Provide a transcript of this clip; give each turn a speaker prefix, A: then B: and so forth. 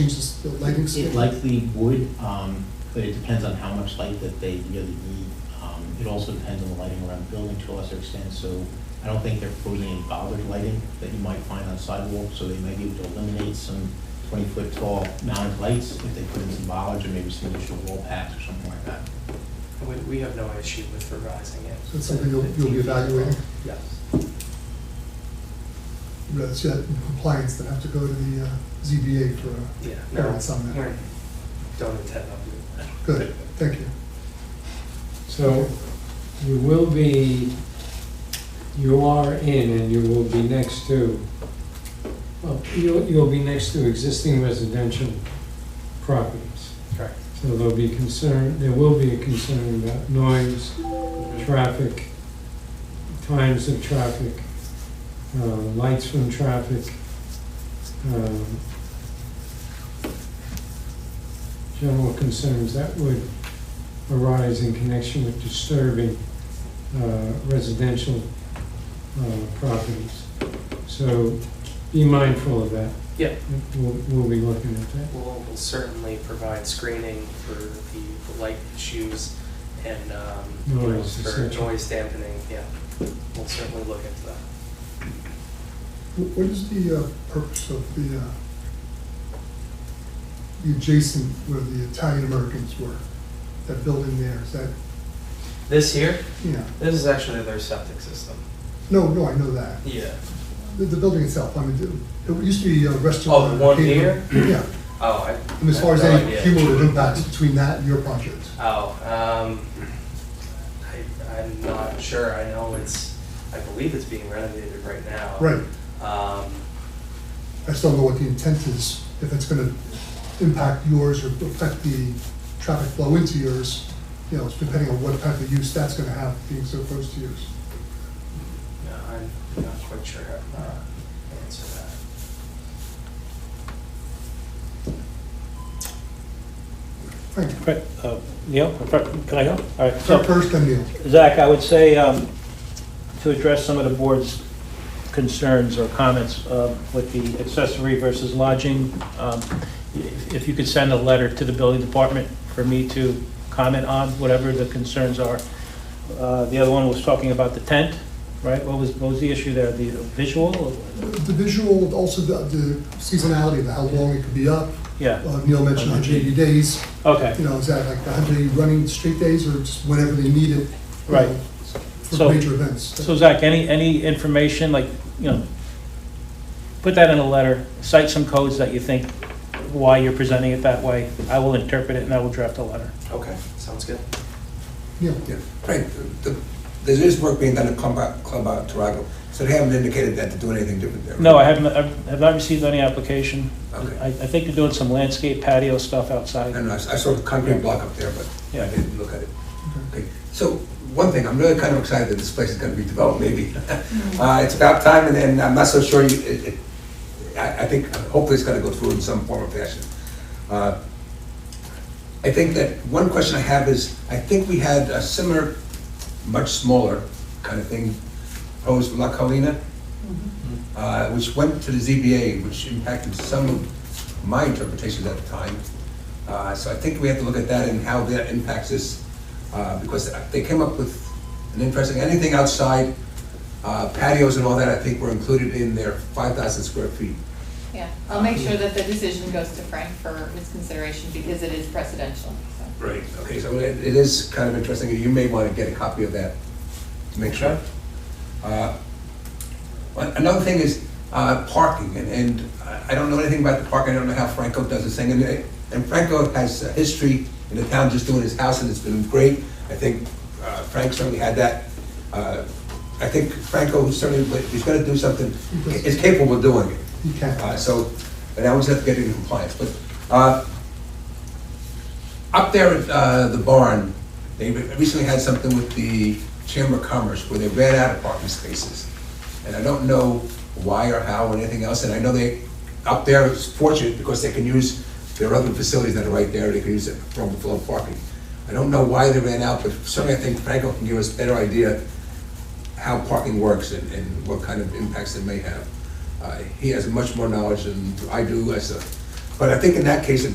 A: change this- the lighting
B: It
A: schedule?
B: likely would, um, but it depends on how much light that they really need. Um, It also depends on the lighting around the building to a lesser extent, so I don't think they're proposing any bothered lighting that you might find on sidewalks, so they may be able to eliminate some twenty-foot tall mounted lights if they put in some bollards or maybe some additional wall packs or something like that.
C: We, we have no issue with revising it.
A: So it's something you'll- you'll be evaluating?
C: Yes.
A: Rather see that in compliance than have to go to the uh, ZBA for, a-
C: Yeah, no,
A: Parents on that.
C: we're, don't intend on doing that.
A: good, thank you.
D: So you will be, you are in and you will be next to, well, you'll, you'll be next to existing residential properties.
C: Correct.
D: So there'll be concern, there will be a concern about noise, traffic, times of traffic, uh, lights from traffic, um, general concerns that would arise in connection with disturbing uh, residential uh, properties. So be mindful of that.
C: Yeah.
D: We'll, we'll be looking at that.
C: We'll, we'll certainly provide screening for the, the light issues and, um, you know,
D: Noise, et
C: for
D: cetera.
C: noise dampening, yeah. We'll certainly look into that.
A: Wh- What is the uh, purpose of the, uh, the adjacent where the Italian Americans were? That building there, is that,
C: This here,
A: yeah,
C: this is actually their septic system.
A: no, no, I know that.
C: Yeah.
A: The, the building itself, I mean, it it used to be a restaurant.
C: Oh, the one
A: catering. Yeah,
C: Oh, I.
A: and as far as
C: I have no
A: any
C: idea.
A: cumulative impacts between that and your project.
C: Oh, um, I, I'm not sure. I know it's, I believe it's being renovated right now.
A: Right,
C: Um,
A: I just don't know what the intent is, if it's gonna impact yours or affect the traffic flow into yours, you know, it's depending on what type of use that's gonna have being so close to yours.
C: no, I'm not quite sure how to answer that.
A: Thank you.
E: Correct. Uh, Neil, can I go? All right,
A: So
E: so
A: first, then Neil.
E: Zach, I would say, um, to address some of the board's concerns or comments uh, with the accessory versus lodging, um, if if you could send a letter to the building department for me to comment on whatever the concerns are. Uh, The other one was talking about the tent, right? What was, what was the issue there, the visual?
A: The visual, also the the seasonality of how long it could be up.
E: Yeah,
A: Uh, Neil mentioned 180 days,
E: okay.
A: you know, is that like 180 running straight days or just whenever they need it? you
E: Right.
A: know, For
E: So-
A: major events.
E: So Zach, any, any information, like, you know, put that in a letter, cite some codes that you think, why you're presenting it that way. I will interpret it and I will draft a letter.
C: Okay, sounds good.
A: Neil,
F: Yeah, Frank, the- the- there is work being done at Club Out, Club Out Tarago, so they haven't indicated that they're doing anything different there.
E: No, I haven't, I have not received any application.
F: Okay.
E: I, I think they're doing some landscape patio stuff
F: I
E: outside.
F: don't know, I s- I saw the concrete block up there, but I
E: Yeah.
F: didn't look at it. Okay, so, one thing, I'm really kind of excited that this place is gonna be developed, maybe. Uh, it's about time, and then I'm not so sure, you- it, it, I, I think, hopefully it's gonna go through in some form or fashion. Uh, I think that, one question I have is, I think we had a similar, much smaller kind of thing proposed with La Colina, uh, which went to the ZBA, which impacted some of my interpretations at the time. Uh, So I think we have to look at that and how that impacts us, uh, because they came up with an interesting, anything outside uh, patios and all that, I think were included in their 5,000 square feet.
G: Yeah, I'll make sure that the decision goes to Frank for his consideration because it is precedential, so.
F: Right. Okay, so it it is kind of interesting, you may want to get a copy of that to make sure. Uh, one- Another thing is uh, parking, and- and I- I don't know anything about the parking, I don't know how Franco does his thing, and it- and Franco has a history in the town just doing his house, and it's been great. I think uh, Frank certainly had that. uh, I think Franco certainly, he's going to do something, is capable of doing it.
A: you can.
F: Uh, So, and I always have to get into compliance, but, uh, up there at, uh, the barn, they re- recently had something with the Chamber of Commerce where they ran out of parking spaces. And I don't know why or how or anything else, and I know they, up there is fortunate because they can use their other facilities that are right there, they can use it for overflow parking. I don't know why they ran out, but certainly I think Franco can give us a better idea how parking works and, and what kind of impacts it may have. Uh, He has much more knowledge than I do as a, But I think in that case, it